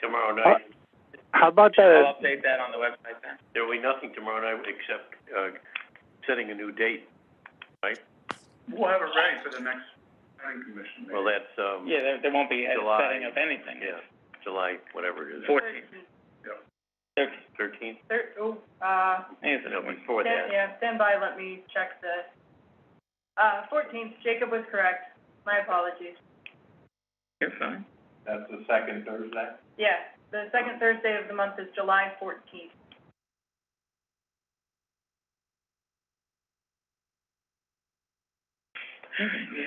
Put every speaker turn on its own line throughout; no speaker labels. tomorrow
Uh,
night.
How about
I'll
the,
update that on the website then.
There'll be nothing tomorrow night except, uh, setting a new date.
We'll have it ready for the next planning commission
Well,
meeting.
that's, um,
Yeah, there, there won't be a
July.
setting of anything.
yeah, July, whatever it is,
Fourteenth.
Yeah.
Thirteenth,
thirteenth,
There, oh, uh,
is
no,
it?
before that.
stand, yeah, stand by, let me check the, uh, fourteenth, Jacob was correct. My apologies.
You're fine.
That's the second Thursday?
Yeah, the second Thursday of the month is July fourteenth.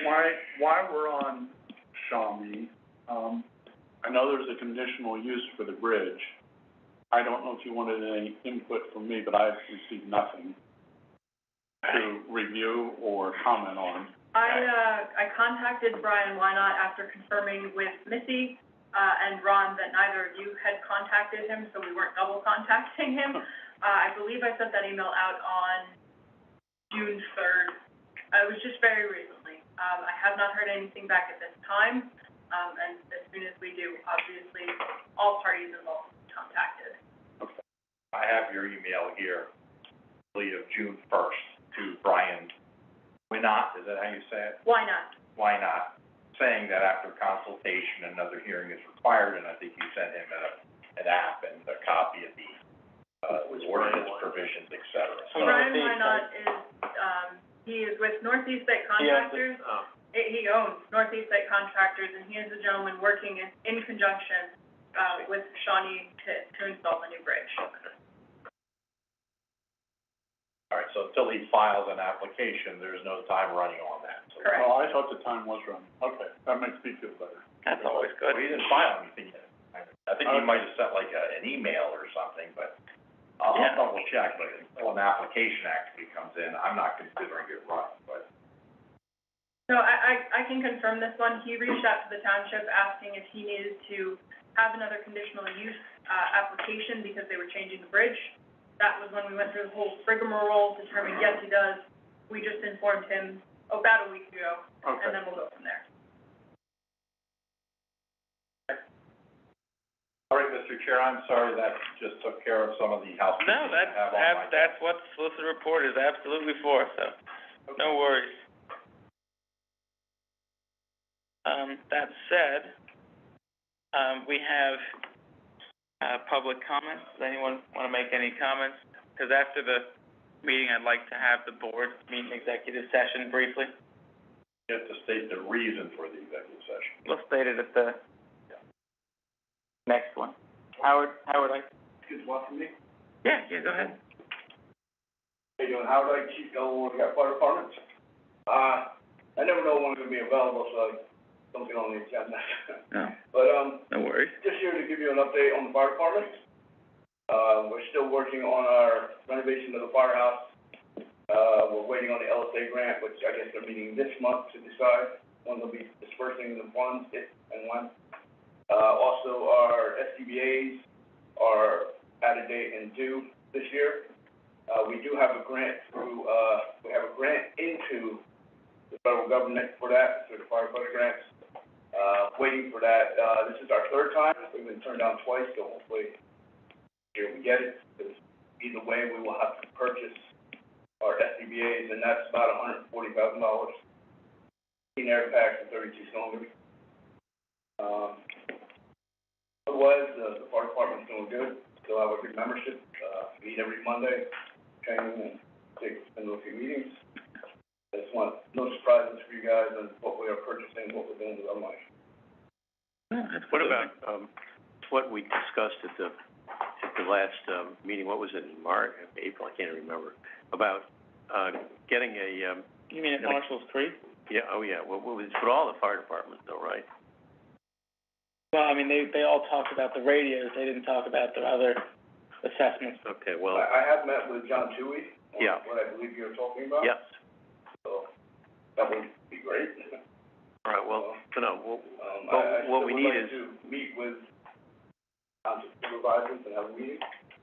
Why, why we're on Shawnee, um, I know there's a conditional use for the bridge. I don't know if you wanted any input from me, but I've received nothing to review or comment on.
I, uh, I contacted Brian Wynot after confirming with Missy, uh, and Ron that neither of you had contacted him, so we weren't double contacting him. Uh, I believe I sent that email out on June third. Uh, it was just very recently. Um, I have not heard anything back at this time, um, and as soon as we do, obviously, all parties involved will be contacted.
I have your email here, lead of June first to Brian Winot, is that how you say it?
Why not?
Why not? Saying that after consultation, another hearing is required, and I think you sent him a, an app and a copy of the, uh, ordinance provisions, et cetera. So,
Well,
Brian
Northeast
Wynot is, um, he is with Northeast Site
He owns it.
Contractors.
Um,
it, he owns Northeast Site Contractors, and he is the gentleman working in, in conjunction, uh, with Shawnee to, to install the new bridge.
all right, so until he files an application, there's no time running on that. So
Correct.
Oh, I thought the time was running. Okay, that makes me feel better.
That's always good. Uh,
Well, he didn't file anything yet. I I think he might have sent like a, an email or something, but I'll
Yeah.
I'll double check, but until an application actually comes in, I'm not considering it running, but
So I, I, I can confirm this one, he reached out to the township asking if he needed to have another conditional use, uh, application because they were changing the bridge. That was when we went through the whole rigmarole, determined, yes, he does, we just informed him about a week ago, and
Okay,
then we'll go from there.
All right, Mr. Chair, I'm sorry that just took care of some of the housekeeping
No,
I
that's,
have on my.
that's, that's what the solicitor report is absolutely for, so, no worries. Um, that said, um, we have, uh, public comments. Does anyone wanna make any comments? 'Cause after the meeting, I'd like to have the board meet in executive session briefly.
You have to state the reason for the executive session.
Let's state it at the next one. Howard, Howard, I,
excuse me, what, for me?
yeah, yeah, go ahead.
Hey, John, how do I keep going when I got fire departments? Uh, I never know when I'm gonna be available, so I don't get on the agenda.
No,
But, um,
no worries.
just here to give you an update on the fire department. Uh, we're still working on our renovation of the firehouse. Uh, we're waiting on the LSA grant, which I guess they're meeting this month to decide when they'll be dispersing the funds, if and when. Uh, also, our SCBA's are out of date and due this year. Uh, we do have a grant through, uh, we have a grant into the federal government for that, through the firefighter grants uh, waiting for that. Uh, this is our third time, we've been turned down twice, so hopefully here we get it. Because Either way, we will have to purchase our SCBA's, and that's about hundred and forty thousand dollars. Eighteen air packs and thirty-two cylinders. Um, otherwise, uh, the fire department's doing good, still have a good membership, uh, meet every Monday, training and take, spend a few meetings. I just want, no surprises for you guys on what we are purchasing, what we're doing with our money.
Oh,
What about, um, what we discussed at the, at the last, um, meeting, what was it, in March, April, I can't remember, about, uh, getting a, um,
You mean at Marshall's Creek?
yeah, oh yeah, well, well, it's for all the fire departments though, right?
Well, I mean, they, they all talked about the radios, they didn't talk about the other assessments.
Okay, well,
I, I have met with John Tui, on
Yeah.
what I believe you're talking about.
yes,
So, that would be great.
all right, well, no, no, well,
Um,
Well,
I, I still
what we
would
need
like
is-
to meet with, um, supervisors and have a meeting.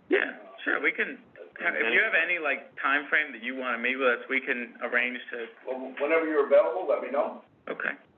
Yeah, sure, we can, if you have any, like, time frame that you wanna meet with us, we can arrange to,
Well, whenever you're available, let me know.
okay.